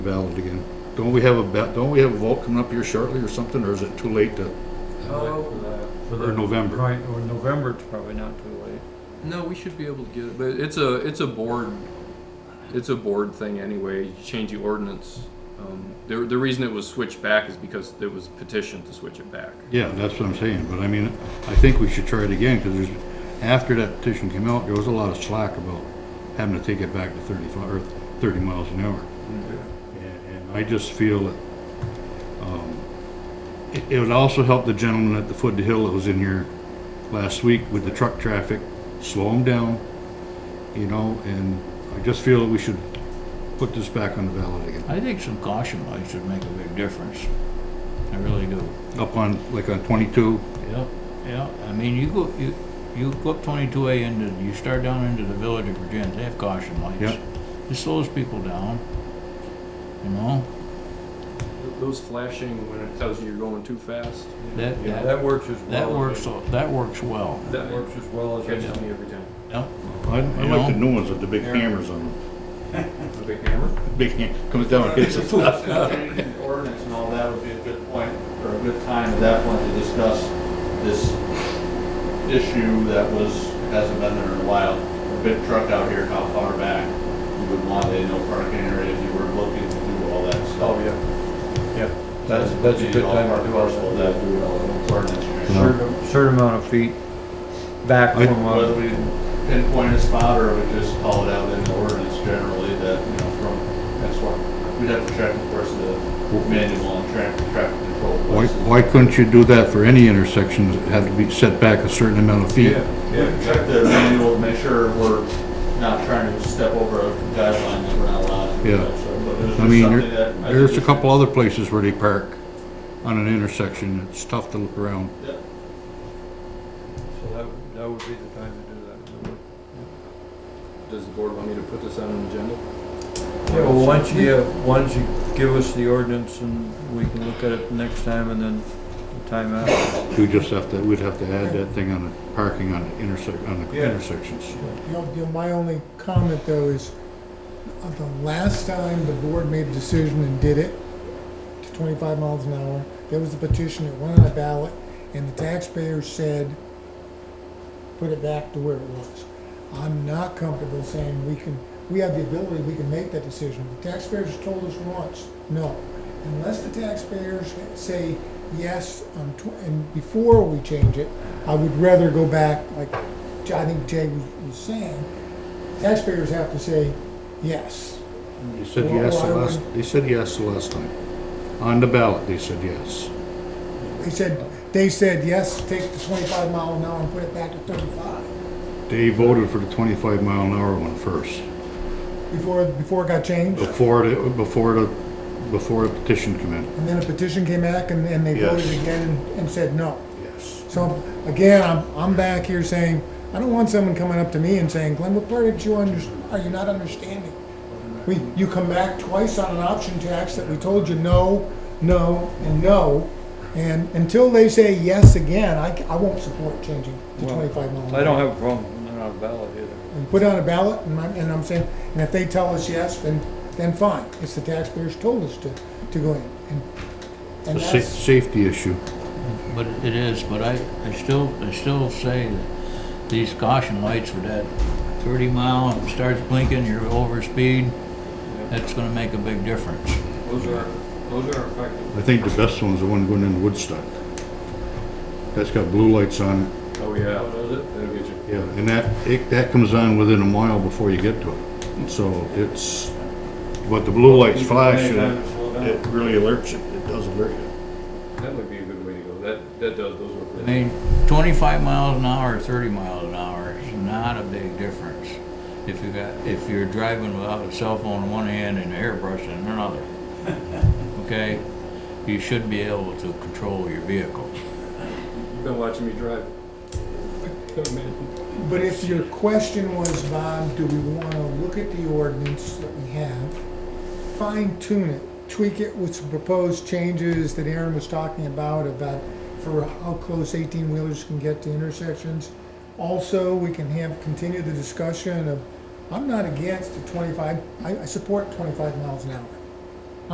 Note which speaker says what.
Speaker 1: valid again. Don't we have a, ba- don't we have a vote coming up here shortly or something, or is it too late to,
Speaker 2: Oh.
Speaker 3: For
Speaker 1: or
Speaker 3: the-
Speaker 1: November?
Speaker 3: Right, or November, it's probably not too late.
Speaker 2: No, we should be able to get it, but it's a, it's a board, it's a board thing anyway, you change the ordinance. Um, The, the reason it was switched back is because there was petition to switch it back.
Speaker 1: Yeah, that's what I'm saying, but I mean, I think we should try it again, because there's, after that petition came out, there was a lot of slack about having to take it back to thirty-five, or thirty miles an hour. And, and I just feel that, um, it, it would also help the gentleman at the foot of the hill that was in here last week with the truck traffic, slow him down, you know, and I just feel that we should put this back on the ballot again.
Speaker 4: I think some caution lights would make a big difference. I really do.
Speaker 1: up on, like on 22,
Speaker 4: Yep, yeah. I mean, you go, you, you go up twenty-two A into, you start down into the village of Virginia, they have caution lights.
Speaker 1: Yep.
Speaker 4: It slows people down, you know?
Speaker 2: Those flashing when it tells you you're going too fast,
Speaker 4: That,
Speaker 3: Yeah,
Speaker 4: that,
Speaker 3: that works as well.
Speaker 4: that
Speaker 3: as
Speaker 4: works,
Speaker 3: I-
Speaker 4: a- that works well.
Speaker 2: that
Speaker 3: That works as well as. I
Speaker 2: catches
Speaker 3: know.
Speaker 2: me every time.
Speaker 4: Yep,
Speaker 1: I, I like the new ones with the big hammers on them.
Speaker 2: A big hammer?
Speaker 1: Big ham, comes down and hits us.
Speaker 5: Changing Ordinance and all that would be a good point, or a good time at that point to discuss this issue that was, hasn't been there in a while. A big truck out here, how far back you would want a no parking area if you were looking to do all that stuff.
Speaker 3: Oh, yeah, yeah. That's,
Speaker 5: That
Speaker 3: that's a
Speaker 5: would be
Speaker 3: good
Speaker 5: all
Speaker 3: time
Speaker 5: part
Speaker 3: to
Speaker 5: and
Speaker 3: do all
Speaker 5: parcel of
Speaker 3: that.
Speaker 5: that ordinance.
Speaker 1: No.
Speaker 3: Certain, certain amount of feet back
Speaker 1: I-
Speaker 3: from,
Speaker 5: Whether
Speaker 3: uh,
Speaker 5: we pinpoint a spot or we just call it out in the ordinance generally that, you know, from, that's what, we'd have to check, of course, the manual and traffic, traffic control.
Speaker 1: Why,
Speaker 5: places.
Speaker 1: why couldn't you do that for any intersection, that had to be set back a certain amount of feet?
Speaker 3: yeah,
Speaker 5: Yeah,
Speaker 3: yeah.
Speaker 5: check the manual, make sure we're not trying to step over a guideline that we're not allowed. to do
Speaker 1: Yeah.
Speaker 5: that, so, but there's
Speaker 1: I mean,
Speaker 5: something
Speaker 1: there-
Speaker 5: that I think
Speaker 1: there's a
Speaker 5: we should-
Speaker 1: couple other places where they park on an intersection, it's tough to look around.
Speaker 5: Yeah.
Speaker 3: So that, would- that would be the time to do that. that. would-
Speaker 2: Does the board want me to put this on an agenda?
Speaker 3: Yeah, well, once you, uh, once you give us the ordinance and we can look at it next time and then the time after.
Speaker 1: You just have to, we'd have to add that thing on the parking on the intersec, on the
Speaker 3: Yeah.
Speaker 1: intersections.
Speaker 6: You know, you know, my only comment though is, uh, the last time the board made a decision and did it to twenty-five miles an hour, there was a petition that went on a ballot, and the taxpayers said, put it back to where it was. I'm not comfortable saying we can, we have the ability, we can make that decision. The taxpayers told us once, no. Unless the taxpayers say yes, on tw- and before we change it, I would rather go back, like I think Jay was, was saying, taxpayers have to say yes.
Speaker 1: They said yes the last, they said yes the last time. On the ballot, they said yes.
Speaker 6: They said, they said, yes, take the twenty-five mile an hour and put it back to thirty-five,
Speaker 1: They voted for the twenty-five mile an hour one first.
Speaker 6: before, before it got changed.
Speaker 1: Before the, before the, before the petition come in.
Speaker 6: And then a petition came back and, and they voted
Speaker 1: Yes.
Speaker 6: again and- and said no.
Speaker 1: Yes.
Speaker 6: So, again, I'm, I'm back here saying, I don't want someone coming up to me and saying, Glenn, what part did you under, are you not understanding? We, you come back twice on an option tax that we told you no, no, and no. And until they say yes again, I, c- I won't support changing to
Speaker 3: Well,
Speaker 6: twenty-five mile an hour.
Speaker 3: I don't have a problem, not on a ballot either.
Speaker 6: And put it on a ballot, and I'm, and I'm saying, and if they tell us yes, then, then fine. It's the taxpayers told us to, to go in. And, and
Speaker 1: It's a sa-
Speaker 6: that's,
Speaker 1: safety issue.
Speaker 4: but it is, but I, I still, I still say that these caution lights with that thirty mile, it starts blinking, you're over speed, that's gonna make a big difference.
Speaker 3: Those are, those are effective.
Speaker 1: I think the best one's the one going into Woodstock. That's got blue lights on it,
Speaker 2: Oh, yeah. That'll get you.
Speaker 1: yeah, and that, it, that comes on within a mile before you get to it. So it's, but the blue lights flash and it really alerts you, it does alert you.
Speaker 2: That might be a good way to go, that, that does, those work.
Speaker 4: I
Speaker 2: really
Speaker 4: mean, twenty-five miles an hour, or thirty miles an hour is not a big difference. If you got, if you're driving without a cell phone in one hand and a airbrush in another, okay? You should be able to control your vehicle.
Speaker 2: You've been watching me drive.
Speaker 6: but if your question was, Bob, do we wanna look at the ordinance that we have, fine tune it, tweak it with some proposed changes that Aaron was talking about, about for how close eighteen wheelers can get to intersections. Also, we can have, continue the discussion of, I'm not against the twenty-five, I, I support twenty-five miles an hour.